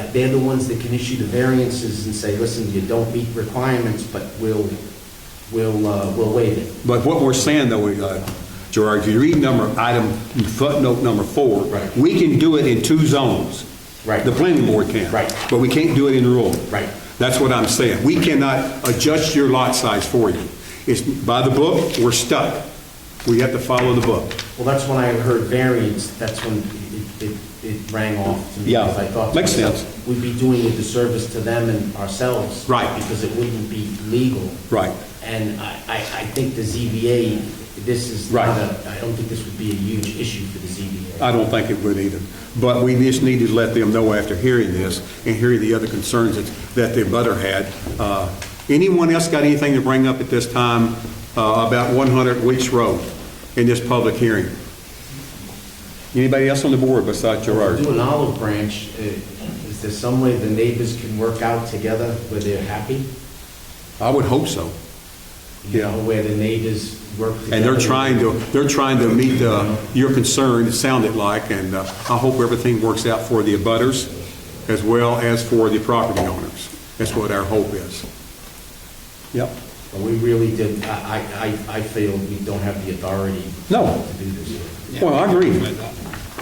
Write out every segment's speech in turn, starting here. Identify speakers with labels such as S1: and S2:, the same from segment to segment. S1: that they're the ones that can issue the variances and say, listen, you don't meet requirements, but we'll, we'll, uh, we'll waive it.
S2: But what we're saying though, we, uh, Gerard, if you read number, item, footnote number four.
S1: Right.
S2: We can do it in two zones.
S1: Right.
S2: The planning board can.
S1: Right.
S2: But we can't do it in rural.
S1: Right.
S2: That's what I'm saying. We cannot adjust your lot size for you. It's by the book, we're stuck. We have to follow the book.
S1: Well, that's when I heard variance, that's when it- it, it rang off to me.
S2: Yeah.
S1: because I thought to
S2: Makes
S1: myself,
S2: sense.
S1: We'd be doing a disservice to them and ourselves.
S2: Right.
S1: Because it wouldn't be legal.
S2: Right.
S1: And I, I, I think the ZBA, this is
S2: Right. Uh,
S1: not a, I don't think this would be a huge issue for the ZBA.
S2: I don't think it would either. But we just need to let them know after hearing this and hearing the other concerns that, that their butter had. Uh, Anyone else got anything to bring up at this time uh, about 100 Weeks Road in this public hearing? Anybody else on the board besides Gerard?
S1: Do an olive branch, eh, is there some way the neighbors can work out together where they're happy?
S2: I would hope so.
S1: You
S2: Yeah.
S1: know, where the neighbors work together.
S2: And they're trying to, they're trying to meet uh, your concern, it sounded like, and uh, I hope everything works out for the abutters as well as for the property owners. That's what our hope is. Yep.
S1: But We really did, I, I, I- I feel we don't have the authority.
S2: No.
S1: To do this.
S2: Well, I agree.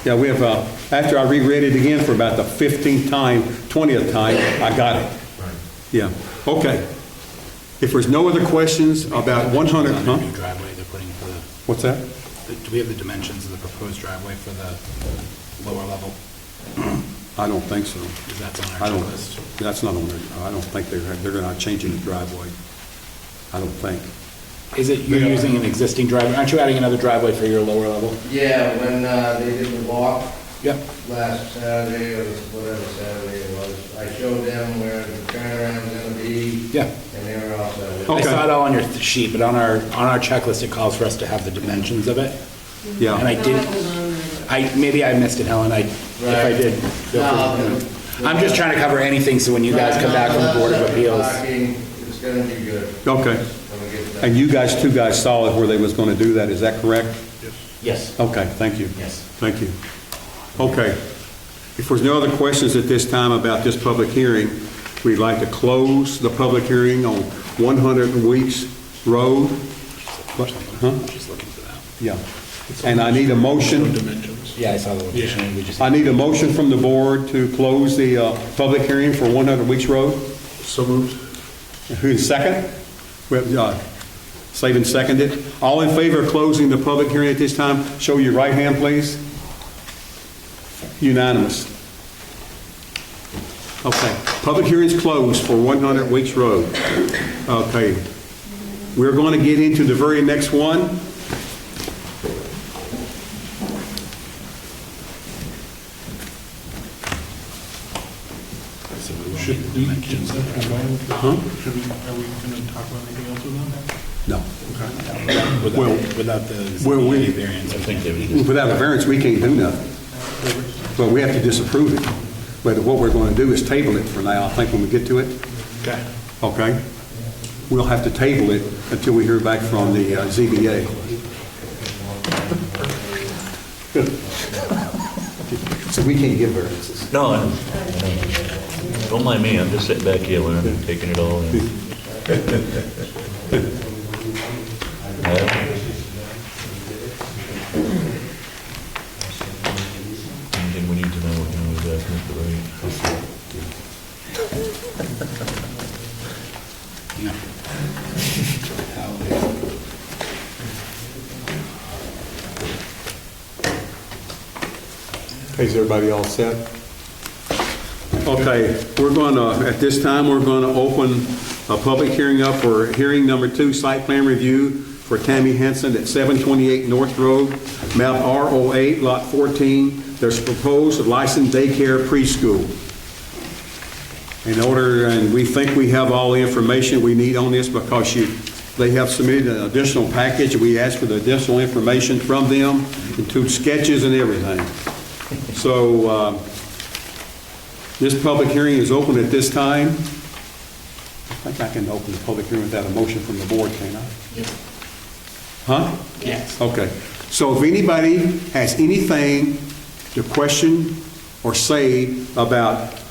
S2: Yeah, we have, uh, after I reread it again for about the 15th time, 20th time, I got it.
S1: Right.
S2: Yeah, okay. If there's no other questions about 100,
S3: On the New
S2: huh?
S3: driveway they're putting for the,
S2: What's that?
S3: do we have the dimensions of the proposed driveway for the lower level?
S2: I don't think so.
S3: Because that's on
S2: I
S3: our
S2: don't,
S3: checklist.
S2: that's not on there. I don't think they're, they're not changing the driveway. I don't think.
S3: Is it, you're using an existing driveway, aren't you adding another driveway for your lower level?
S4: Yeah, when uh, they did the walk
S3: Yep.
S4: last Saturday, or whatever Saturday it was, I showed them where the turnaround's gonna be.
S3: Yeah. Oh.
S4: And they were all set. with it.
S3: I
S2: Okay.
S3: saw it all on your sheet, but on our, on our checklist, it calls for us to have the dimensions of it.
S2: Yeah.
S3: And I didn't, I, maybe I missed it, Helen, I, if I
S4: Right.
S3: did. feel
S4: No,
S3: free to-
S4: but-
S3: I'm just trying to cover anything, so when you guys come back from the Board of Appeals.
S4: Parking, It's gonna be good
S2: Okay.
S4: when we get
S2: And
S4: done.
S2: you guys, two guys saw it where they was going to do that, is that correct?
S1: Yes,
S2: Okay, thank you.
S1: Yes.
S2: Thank you. Okay. If there's no other questions at this time about this public hearing, we'd like to close the public hearing on 100 Weeks Road. What? Huh?
S3: Just looking for that.
S2: Yeah. And I need a motion.
S3: Yeah, I saw the location, we just.
S2: I need a motion from the board to close the uh, public hearing for 100 Weeks Road. So moved. Who's second? We have, uh, Slavin seconded. All in favor of closing the public hearing at this time, show your right hand, please. Unanimous. Okay, public hearing's closed for 100 Weeks Road. Okay. We're going to get into the very next one.
S5: Should we, is that combined? Should we, are we going to talk about anything else with
S2: No.
S3: Without
S2: Well-
S3: without the
S2: Well, we-
S3: ZBA variance, I think they would just
S2: Without a variance, we can't do nothing.
S5: them?
S2: Well, we have to disapprove it. But what we're going to do is table it for now, I think when we get to it,
S5: Okay.
S2: okay? We'll have to table it until we hear back from the uh, ZBA. So we can't give variances.
S6: No, I'm- don't mind me, I'm just sitting back here learning, taking it all in. Anything we need to know, you know, is asking for the right.
S2: Is everybody all set? Okay, we're going to, at this time, we're going to open a public hearing up for hearing number two, site plan review for Tammy Henson at 728 North Road, map R08, lot 14. There's proposed licensed daycare preschool. In order, and we think we have all the information we need on this because you, they have submitted an additional package. We asked for the additional information from them, include sketches and everything. So uh, this public hearing is open at this time. I think I can open the public hearing without a motion from the board, can I? Huh? Yes. Okay. So if anybody has anything to question or say about